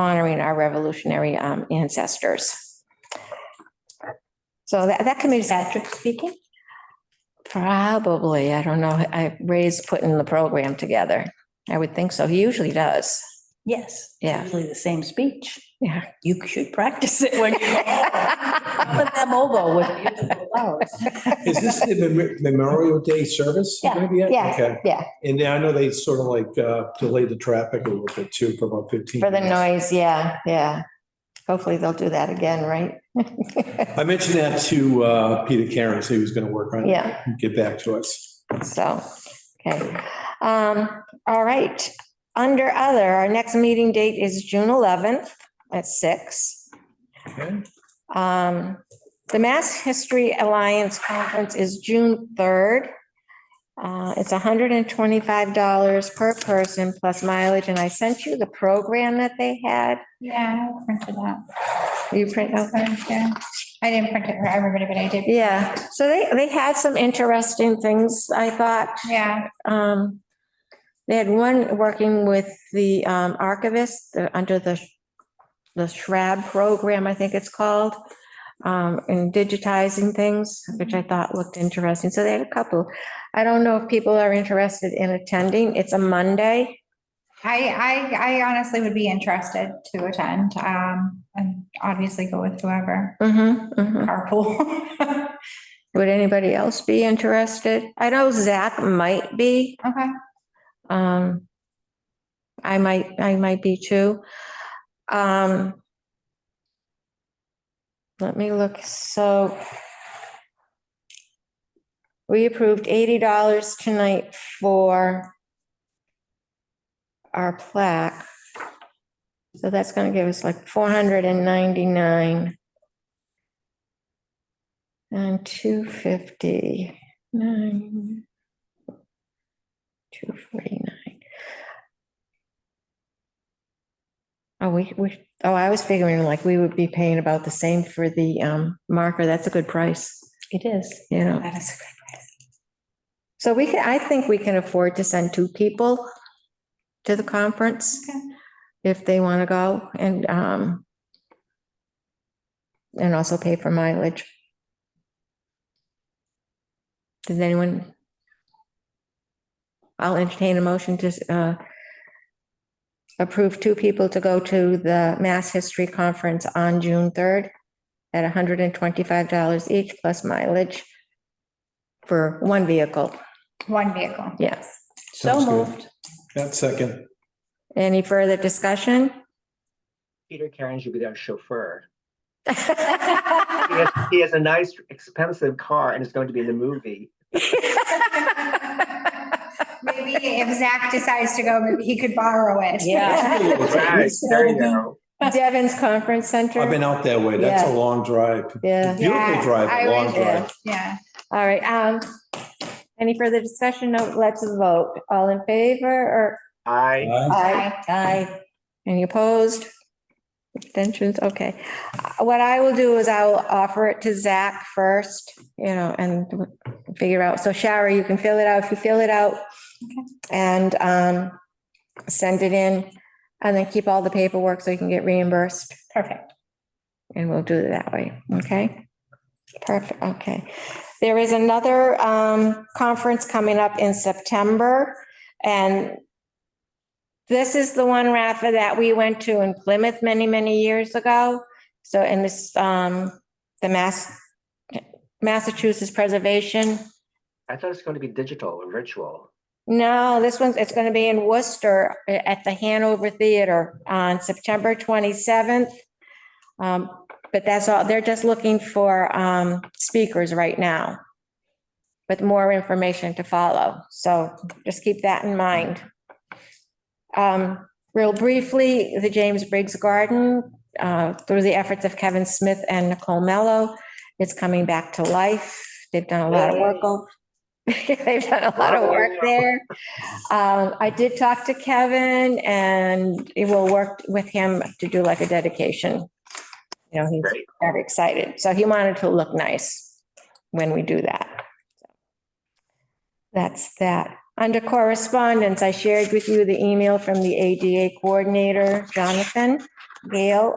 honoring our revolutionary um, ancestors. So that, that committee, Patrick speaking? probably, I don't know, I, Ray's putting the program together. I would think so. He usually does. Yes. Yeah. Usually the same speech. Yeah. You should practice it when you. Put them over with beautiful flowers. Is this the Mem- Memorial Day service? Yeah, maybe yet? yeah, Okay. yeah. And I know they sort of like uh, delayed the traffic a little bit too for about 15 For the minutes. noise, yeah, yeah. Hopefully they'll do that again, right? I mentioned that to uh, Peter Karen, so he was going to work on it, Yeah, and get back to us. so, okay. Um, all right. Under other, our next meeting date is June eleventh at six. Okay. Um, the Mass History Alliance Conference is June third. Uh, it's hundred and twenty-five dollars per person plus mileage, and I sent you the program that they had. Yeah, I printed that. You print, okay? Yeah. I didn't print it for everybody, but I did. Yeah, so they, they had some interesting things, I thought. Yeah, Um, They had one working with the um, archivist uh, under the, the Shrab program, I think it's called, um, in digitizing things, which I thought looked interesting. So they had a couple. I don't know if people are interested in attending. It's a Monday. I, I, I honestly would be interested to attend, um, and obviously go with whoever, Mhm, mm-hmm. mhm. carpool. Would anybody else be interested? I know Zach might be. Okay, Um, I might, I might be too. Um, let me look, so we approved eighty dollars tonight for our plaque. So that's gonna give us like four hundred and ninety-nine. And two fifty, nine. 249. Oh, we, we, oh, I was figuring like we would be paying about the same for the um, marker. That's a good price, It is. you know. that is a good price. So we can, I think we can afford to send two people to the conference Okay. if they want to go and um and also pay for mileage. Does anyone? I'll entertain a motion to uh approve two people to go to the Mass History Conference on June third at hundred and twenty-five dollars each plus mileage for one vehicle. One vehicle. Yes. So Sounds good. moved. That second. Any further discussion? Peter Karen should be their chauffeur. He has, he has a nice, expensive car and is going to be in the movie. Maybe if Zach decides to go, maybe he could borrow it. Yeah. Right, there you go. Devon's Conference Center. I've been out that way. That's a Yeah. long drive. Yeah, Beautiful Yeah, drive, I a long would- drive. Yeah, all right. Um, any further discussion? No, let's vote. All in favor or? I, Aye. Aye. Aye. Any opposed? Abstentions? Okay. Uh, What I will do is I'll offer it to Zach first, you know, and figure out. So Shara, you can fill it out if you fill it out. And, um, send it in and then keep all the paperwork so you can get reimbursed. Perfect. And we'll do it that way, okay? Perfect, okay. There is another um, conference coming up in September, and this is the one, Rafa, that we went to in Plymouth many, many years ago. So, and this, um, the Mass, Massachusetts Preservation. I thought it's going to be digital and virtual. No, this one's, it's gonna be in Worcester at the Hanover Theater on September twenty-seventh. Um, but that's all, they're just looking for, um, speakers right now. With more information to follow, so just keep that in mind. Um, real briefly, the James Briggs Garden, uh, through the efforts of Kevin Smith and Nicole Mello, it's coming back to life. They've done a lot of work over. They've done a lot of work there. Um, I did talk to Kevin and it will work with him to do like a dedication. You know, he's Great. very excited. So he wanted to look nice when we do that. That's that. Under correspondence, I shared with you the email from the ADA coordinator, Jonathan Gale,